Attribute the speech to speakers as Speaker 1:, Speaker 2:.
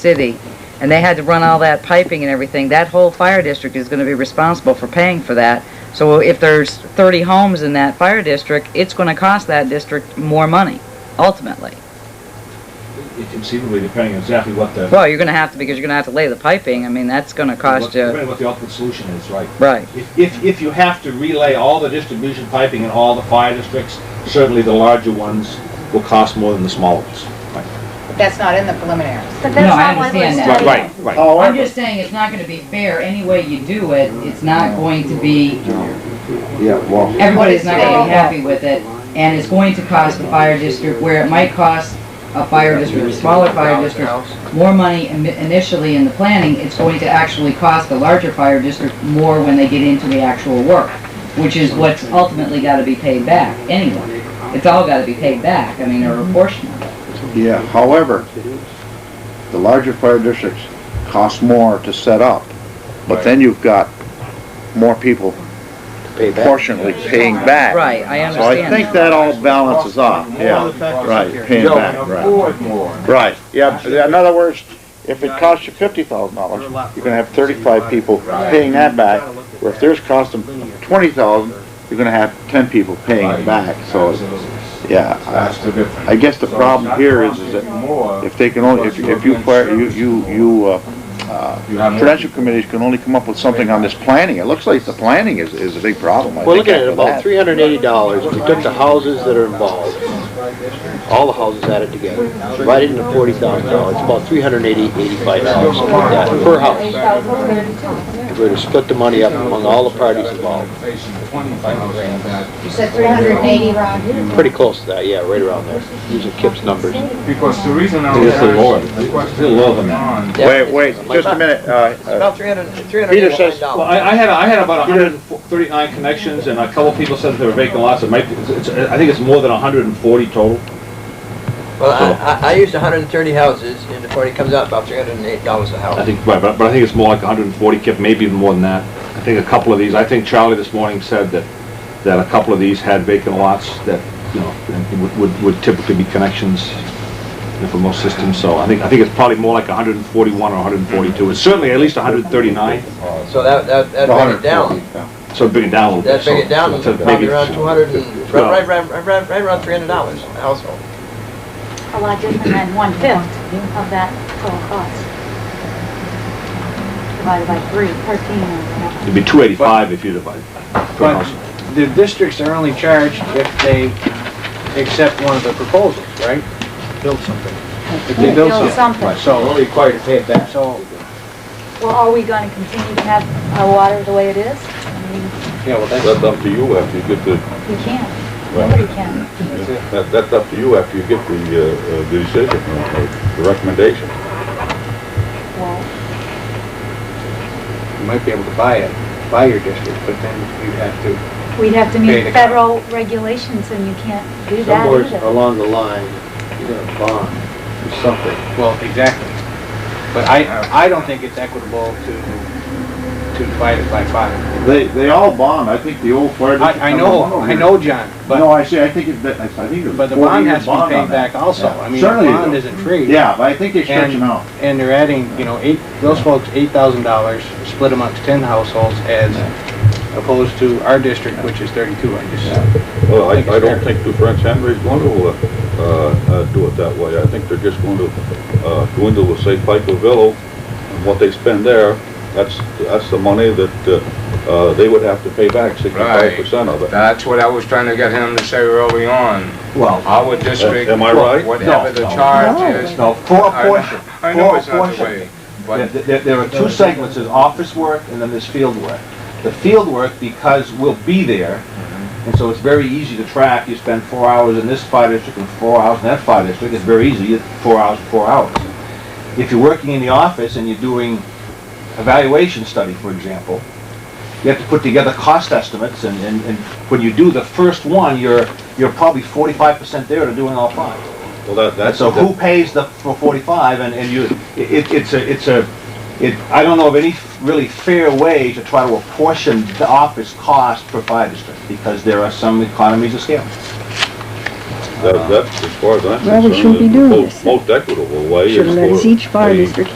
Speaker 1: city, and they had to run all that piping and everything, that whole fire district is gonna be responsible for paying for that. So if there's thirty homes in that fire district, it's gonna cost that district more money, ultimately.
Speaker 2: Conceivably, depending on exactly what the.
Speaker 1: Well, you're gonna have to, because you're gonna have to lay the piping, I mean, that's gonna
Speaker 2: what-
Speaker 1: cost you,
Speaker 2: Depending what the ultimate solution is, right.
Speaker 1: right.
Speaker 2: If, if, if you have to relay all the distribution piping in all the fire districts, certainly the larger ones will cost more than the smaller ones.
Speaker 3: But that's not in the preliminaries.
Speaker 4: But
Speaker 1: No,
Speaker 4: that's
Speaker 1: I
Speaker 4: not why we're
Speaker 1: understand that.
Speaker 4: studying.
Speaker 2: Right, right, right.
Speaker 1: I'm just saying, it's not gonna be fair, any way you do it, it's not going to be
Speaker 5: Yeah, well,
Speaker 1: everybody's not gonna be happy with it, and it's going to cost the fire district, where it might cost a fire district, a smaller fire district, more money ini- initially in the planning, it's going to actually cost the larger fire district more when they get into the actual work, which is what's ultimately gotta be paid back, anyway. It's all gotta be paid back, I mean, or a portion of it.
Speaker 5: yeah, however, the larger fire districts cost more to set up, but then you've got more people proportionately paying back.
Speaker 1: Right, I
Speaker 5: So I think that all balances off, yeah, right, paying back, right.
Speaker 6: more.
Speaker 5: Right, yeah, in other words, if it costs you fifty thousand dollars, you're gonna have thirty-five people paying that back, where if theirs cost them twenty thousand, you're gonna have ten people paying it back, so, yeah. I-
Speaker 6: That's the difference.
Speaker 5: I guess the problem here is, is that
Speaker 6: More,
Speaker 5: if they can only, if, if you fire, you, you, you, uh,
Speaker 6: you have more.
Speaker 5: Prudential committees can only come up with something on this planning. It looks like the planning is, is a big problem. I
Speaker 7: We're
Speaker 5: think,
Speaker 7: looking at
Speaker 5: after
Speaker 7: about
Speaker 5: that.
Speaker 7: three hundred and eighty dollars, if we took the houses that are involved, all the houses added together, divided into forty thousand dollars, about three hundred and eighty, eighty-five dollars, something like that, per house. If we were to split the money up among all the parties involved,
Speaker 3: You said 380, Rob?
Speaker 7: pretty close to that, yeah, right around there, using Kip's numbers.
Speaker 6: Because the reason I
Speaker 2: It's
Speaker 6: was
Speaker 2: a lower.
Speaker 6: asking the
Speaker 2: It's a lower
Speaker 6: question
Speaker 2: than that.
Speaker 6: on,
Speaker 5: Wait, wait, just a minute, uh, uh,
Speaker 8: About 300,
Speaker 5: Peter says-
Speaker 2: Well, I, I had, I had about hundred and thirty-nine connections, and a couple people said that there were vacant lots, it might, be- it's, it's- I think it's more than hundred and forty total.
Speaker 8: Well, I, I, I used hundred and thirty houses, and the it comes out about three hundred and eight dollars a
Speaker 2: I
Speaker 8: house.
Speaker 2: think, right, but, but I think it's more like hundred and forty, Kip, maybe even more than that. I think a couple of these, I think Charlie this morning said that, that a couple of these had vacant lots that, you know, and would- would, would typically be connections you know, for most systems, so I think, I think it's probably more like hundred and forty-one or hundred and forty-two. It's certainly at least hundred and thirty-nine,
Speaker 8: So that, that,
Speaker 9: uh,
Speaker 8: that bring it down,
Speaker 2: so bring it down a little bit.
Speaker 8: that bring it down
Speaker 2: so-
Speaker 8: to
Speaker 2: so
Speaker 8: probably
Speaker 2: maybe-
Speaker 8: around two hundred and,
Speaker 2: Well-
Speaker 8: right, right, right, right, right around three hundred dollars a household.
Speaker 4: A lot different than one-fifth of that total cost. Divided by three, thirteen or whatever.
Speaker 2: It'd be two eighty-five if you divide. per
Speaker 10: But
Speaker 2: house.
Speaker 10: the districts are only charged if they accept one of the proposals, right? Build something. If they build
Speaker 4: Build
Speaker 10: something.
Speaker 4: something.
Speaker 10: So,
Speaker 6: required to pay it back.
Speaker 10: so,
Speaker 4: Well, are we gonna continue to have our water the way it is? I mean,
Speaker 10: yeah, well, that's,
Speaker 9: That's up to you after you get the,
Speaker 4: you can't, nobody can.
Speaker 9: that- that's up to you after you get the, uh, uh, the decision, or or the recommendation.
Speaker 4: Well,
Speaker 10: you might be able to buy it, buy your district, but then you have to,
Speaker 4: we'd have to
Speaker 10: Okay, the-
Speaker 4: meet federal regulations and you can't do that
Speaker 7: Somewhere
Speaker 4: either.
Speaker 7: along the line, you're gonna bond or something.
Speaker 10: well, exactly. But I, I don't think it's equitable to, to divide it by five.
Speaker 5: they, they all bond, I think the old fire district.
Speaker 10: I, I know, I know, John,
Speaker 5: No,
Speaker 10: but,
Speaker 5: I see, I think it, I think it's
Speaker 10: but the
Speaker 5: forty
Speaker 10: bond
Speaker 5: year
Speaker 10: has to
Speaker 5: bond
Speaker 10: be
Speaker 5: on
Speaker 10: paid back
Speaker 5: that.
Speaker 10: also.
Speaker 5: Yeah.
Speaker 10: I mean, the
Speaker 5: Certainly you
Speaker 10: bond
Speaker 5: do.
Speaker 10: isn't free.
Speaker 5: Yeah, but I think they stretch them out.
Speaker 10: and they're adding, you know, eight, those folks, eight thousand dollars split amongst ten households as opposed to our district, which is thirty-two, I guess.
Speaker 9: Well, I,
Speaker 10: I think it's
Speaker 9: I don't
Speaker 10: fair.
Speaker 9: think New French Henry's going to, uh, uh, uh, do it that way. I think they're just going to, uh, dwindle with, say, Pico Villo, and what they spend there, that's, that's the money that, uh, uh, they would have to pay back sixty-five percent of it.
Speaker 6: That's what I was trying to get him to say early on.
Speaker 2: Well,
Speaker 6: Our district,
Speaker 9: Am I right?
Speaker 6: whatever the charge is.
Speaker 2: no, four,
Speaker 6: I-
Speaker 2: four,
Speaker 6: I know it's not the way,
Speaker 2: There-
Speaker 6: but
Speaker 2: There, there are two segments, there's office work and then there's field work. The field work, because we'll be there, and so it's very easy to track, you spend four hours in this fire district and four hours in that fire district, it's very easy, you- four hours, four hours. If you're working in the office and you're doing evaluation study, for example, you have to put together cost estimates, and, and, and when you do the first one, you're, you're probably forty-five percent there to doing all five.
Speaker 9: Well, that, that's.
Speaker 2: So who pays the, for forty-five, and, and you, it, it's a, it's a, it, I don't know of any really fair way to try to apportion the office cost per fire district, because there are some economies of scale.
Speaker 9: That, that's, as far as I'm concerned, the most, most equitable way is for. Should each fire district